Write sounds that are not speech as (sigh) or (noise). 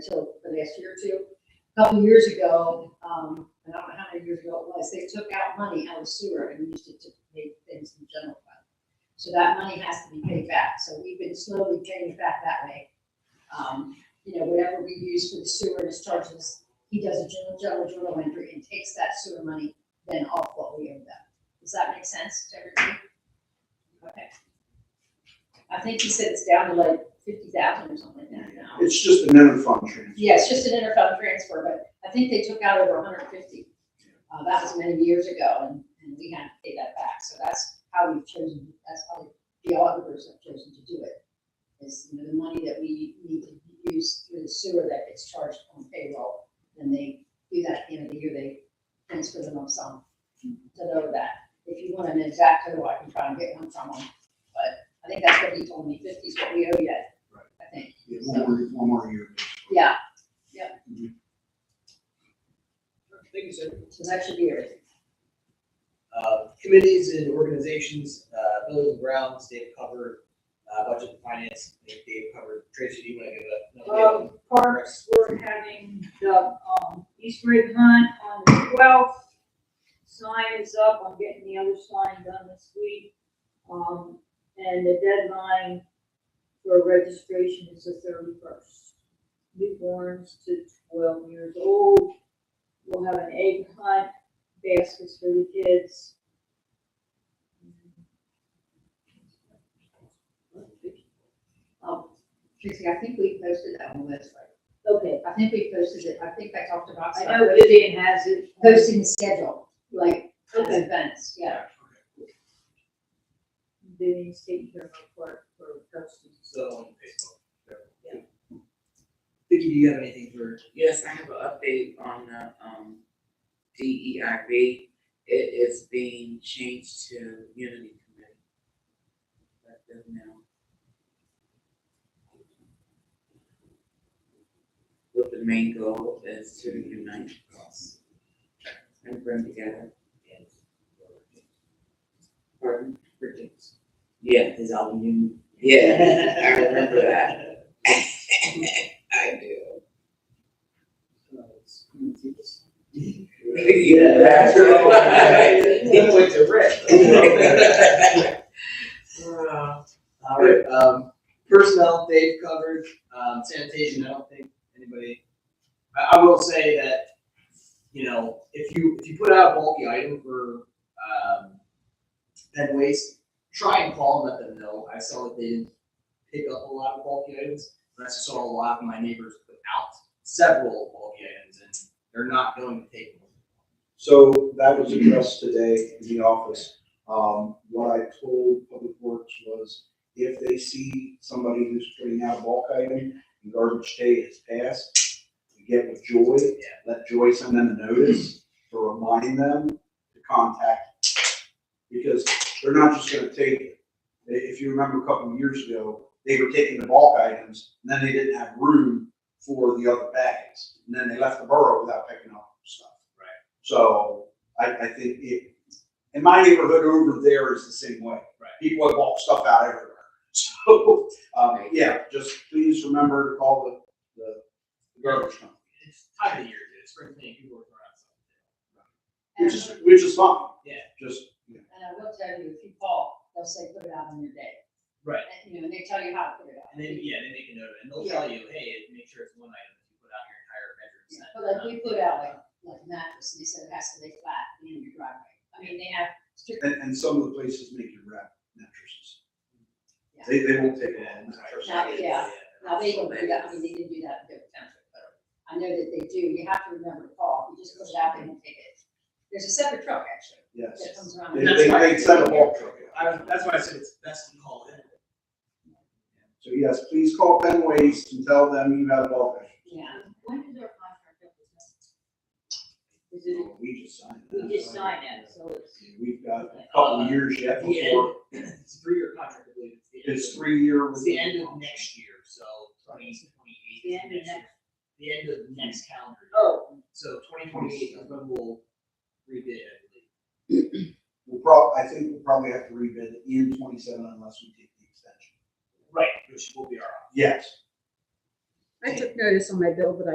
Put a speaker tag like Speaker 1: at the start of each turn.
Speaker 1: until the next year or two. A Couple years ago, um, I don't know how many years ago it was, they took out money out of sewer and used it to pay things in general fund. So that money has to be paid back, so we've been slowly paying it back that way. Um, you know, whatever we use for the sewer is charges, he does a general, general, general entry and takes that sewer money then off what we owe them. Does that make sense to everybody? Okay. I think he said it's down to like fifty thousand or something like that now.
Speaker 2: It's just an interfund transfer.
Speaker 1: Yeah, it's just an interfund transfer, but I think they took out over hundred fifty. Uh, that was many years ago, and, and we had to pay that back, so that's how we've chosen, that's how the auditors have chosen to do it. Is, you know, the money that we need to use through the sewer that gets charged on payroll, and they do that at the end of the year, they transfer the lump sum to know that. If you want an exact total, I can try and get one from them, but I think that's what he told me, fifty is what we owe yet,
Speaker 2: Right.
Speaker 1: I think,
Speaker 2: Yeah, One more, one more year.
Speaker 1: yeah.
Speaker 3: Thank you, sir.
Speaker 1: So that should be everything.
Speaker 3: Uh, Committees and organizations, uh, buildings and grounds, they've covered uh, budget and finance, I think they've covered. Tracy, do you want to give it up?
Speaker 4: Um, parks, we're having the, um, Easter egg hunt on the twelfth. Sign is up, I'm getting the other sign done this week. Um, and the deadline for registration is the thirty-first. Newborns to twelve years old. We'll have an egg hunt, baskets for the kids.
Speaker 1: Um, Tracy, I think we posted that on the website.
Speaker 4: Okay,
Speaker 1: I think we posted it, I think I talked about.
Speaker 4: I know Vivian has it.
Speaker 1: Posting the schedule, like, as
Speaker 4: Okay.
Speaker 1: events, yeah.
Speaker 4: Vivian's taking care of her part for posting.
Speaker 3: So on Facebook. Vicky, do you have anything for,
Speaker 5: Yes, I have an update on the, um, DEIB. It is being changed to Unity Committee. Let them know. What the main goal is to unite us and bring together. Pardon?
Speaker 3: Bridget's?
Speaker 5: Yeah,
Speaker 3: His album, you.
Speaker 5: yeah, (laughs) I remember that. (laughs) I do.
Speaker 3: (laughs) Yeah, (laughs) that's right. He went to (laughs)
Speaker 2: (laughs)
Speaker 3: All right, um, personnel, they've covered, um, sanitation, I don't think anybody, I, I will say that, you know, if you, if you put out a bulky item for, um, then waste, try and call and let them know, I saw that they didn't pick up a lot of bulky items, but I saw a lot of my neighbors put out several bulky items, and they're not going to take them.
Speaker 2: So that was addressed today in the office. Um, what I told Public Works was if they see somebody who's putting out a bulk item and garbage day has passed, we get with Joy, let Joy send them a notice to remind them to contact. Because they're not just gonna take it. I- If you remember a couple of years ago, they were taking the bulk items and then they didn't have room for the other bags. And then they left the borough without picking up stuff. So I, I think it, in my neighborhood over there is the same way.
Speaker 3: Right.
Speaker 2: People have walked stuff out everywhere. (laughs) So, um, yeah, just please remember to call the, the garbage company,
Speaker 3: It's time of the year, dude, it's spring cleaning, people are throwing out stuff.
Speaker 2: which is, which is fine.
Speaker 3: Yeah.
Speaker 2: Just, you know,
Speaker 1: And I will tell you, if you call, they'll say, put it out on your day.
Speaker 3: Right.
Speaker 1: And, you know, and they tell you how to put it out.
Speaker 3: And then, yeah, they make a note, and they'll tell you, hey, make sure it's one item, if you put out your entire bedroom set.
Speaker 1: But like, we put out like, like mattress, and they said it has to lay flat in your driveway. I mean, they have strict,
Speaker 2: and, and some of the places make you wrap mattresses.
Speaker 1: Yeah.
Speaker 2: They, they won't take a whole mattress.
Speaker 1: Now, yeah. now they don't do that, I mean, they didn't do that in Dover Township, but I know that they do, you have to remember to call, If you just put it out, they won't take it. There's a separate truck, actually.
Speaker 2: Yes.
Speaker 1: that comes around.
Speaker 2: They, they, they send a bulk truck out.
Speaker 3: I was, that's why I said it's best to call it.
Speaker 2: So yes, please call Penways and tell them you have a bulk item.
Speaker 1: Yeah,
Speaker 4: When is our contract up with them? Is it,
Speaker 2: Well, We just signed that.
Speaker 4: we just signed it, so it's,
Speaker 2: We've got a couple of years yet before.
Speaker 3: It's a three-year contract, I believe. the end
Speaker 2: It's
Speaker 3: of-
Speaker 2: three year.
Speaker 3: It's the end of next year, so twenty twenty-eight.
Speaker 4: The end of next-
Speaker 3: The end of next calendar. year.
Speaker 4: oh,
Speaker 3: So twenty twenty-eight is when we'll rebid, I believe.
Speaker 2: We'll prob, I think we'll probably have to rebid it in twenty-seven unless we take the extension.
Speaker 3: Right. Which will be our,
Speaker 2: Yes.
Speaker 1: I took notice on my bill, but I